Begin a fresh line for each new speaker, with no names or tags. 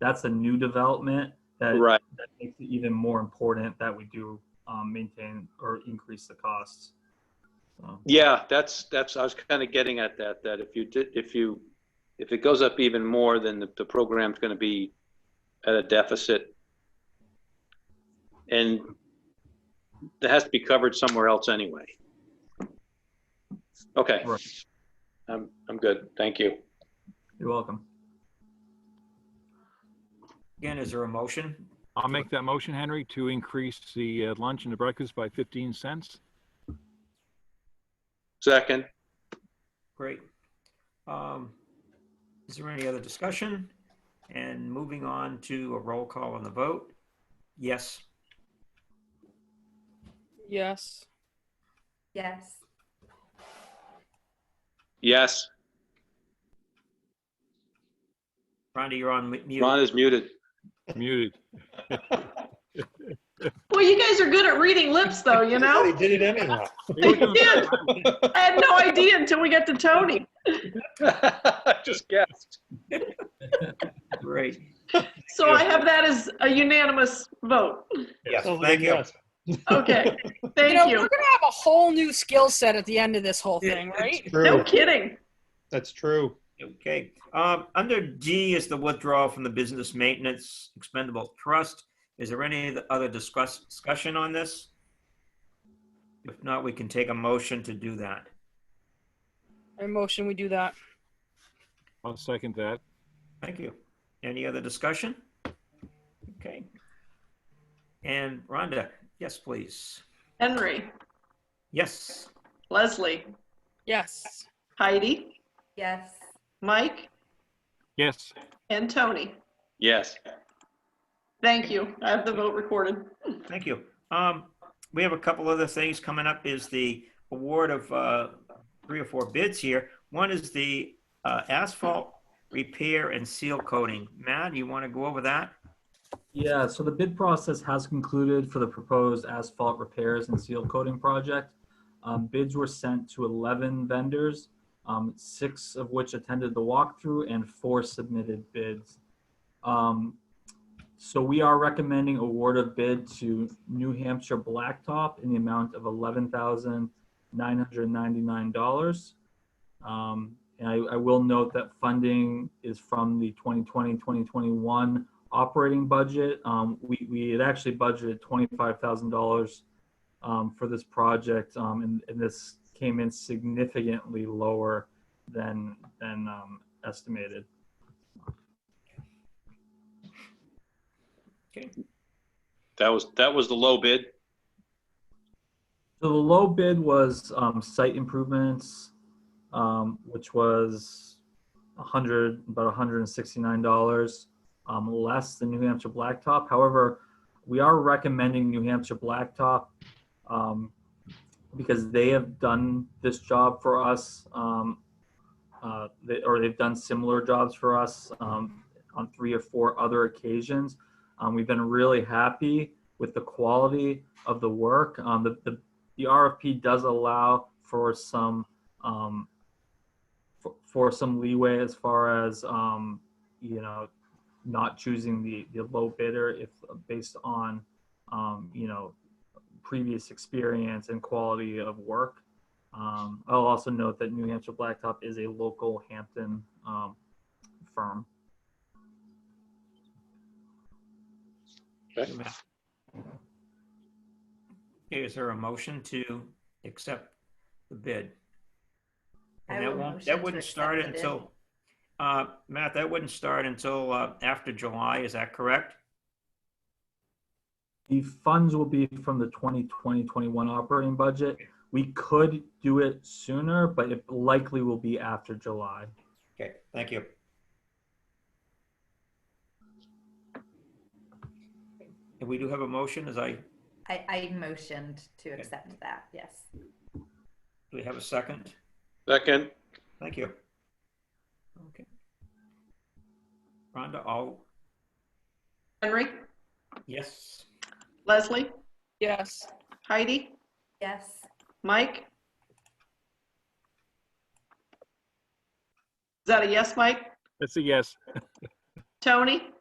that's a new development that,
Right.
that makes it even more important that we do um, maintain or increase the costs. So,
Yeah, that's, that's, I was kind of getting at that, that if you did, if you, if it goes up even more, then the, the program's going to be at a deficit. And that has to be covered somewhere else anyway. Okay.
Right.
I'm, I'm good. Thank you.
you're welcome.
Again, is there a motion?
I'll make that motion, Henry, to increase the uh, lunch and the breakfast by 15 cents.
Second,
Great. Um, Is there any other discussion? And moving on to a roll call on the vote. Yes,
Yes.
Yes.
yes.
Rhonda, you're on mute.
Ron is muted.
Muted.
Well, you guys are good at reading lips, though, you know?
They did it anyhow.
did. I had no idea until we got to Tony.
Just guessed.
Great.
So I have that as a unanimous vote.
Yes,
Sounds like
thank
a
you.
yes.
Okay,
You know,
thank
we're
you.
gonna have a whole new skill set at the end of this whole thing, right?
That's
No
true.
kidding.
That's true.
Okay. Um, Under G is the withdrawal from the Business Maintenance Expendable Trust. Is there any other discuss, discussion on this? If not, we can take a motion to do that.
In motion, we do that.
I'll second that.
Thank you. Any other discussion? Okay. And Rhonda, yes, please.
Henry,
Yes.
Leslie,
Yes.
Heidi,
Yes.
Mike,
Yes,
and Tony.
Yes.
Thank you. I have the vote recorded.
Thank you. Um, we have a couple other things coming up is the award of, uh, three or four bids here. One is the, uh, asphalt repair and seal coating. Matt, you want to go over that?
Yeah, so the bid process has concluded for the proposed asphalt repairs and seal coating project. Um, bids were sent to 11 vendors, um, six of which attended the walkthrough and four submitted bids. Um, so we are recommending award of bid to New Hampshire Blacktop in the amount of $11,999. Um, and I, I will note that funding is from the 2020 2021 operating budget. Um, we, we had actually budgeted twenty-five thousand dollars um, for this project, um, and, and this came in significantly lower than than um, estimated.
That was, that was the low bid.
So the low bid was um, site improvements, um, which was a hundred, about hundred and sixty-nine dollars um, less than New Hampshire Blacktop. However, we are recommending New Hampshire Blacktop um, because they have done this job for us, um, uh, they, or they've done similar jobs for us um, on three or four other occasions. Um, we've been really happy with the quality of the work. Um, the, the the RFP does allow for some um, for, for some leeway as far as um, you know not choosing the the low bidder if based on um, you know previous experience and quality of work. Um, I'll also note that New Hampshire Blacktop is a local Hampton um, firm.
Is there a motion to accept the bid?
I
And that
will
won't,
motion
that
to
wouldn't
accept
start
the bid.
until, uh, Matt, that wouldn't start until, uh, after July, is that correct?
The funds will be from the 2020-21 operating budget. We could do it sooner, but it likely will be after July.
Okay, thank you. And we do have a motion, as I, do
I, I motioned to accept that. Yes.
we have a second?
Second,
Thank you. Okay. Rhonda, all,
Henry,
yes?
Leslie,
Yes.
Heidi,
Yes.
Mike? Is that a yes, Mike?
that's a yes.
Tony?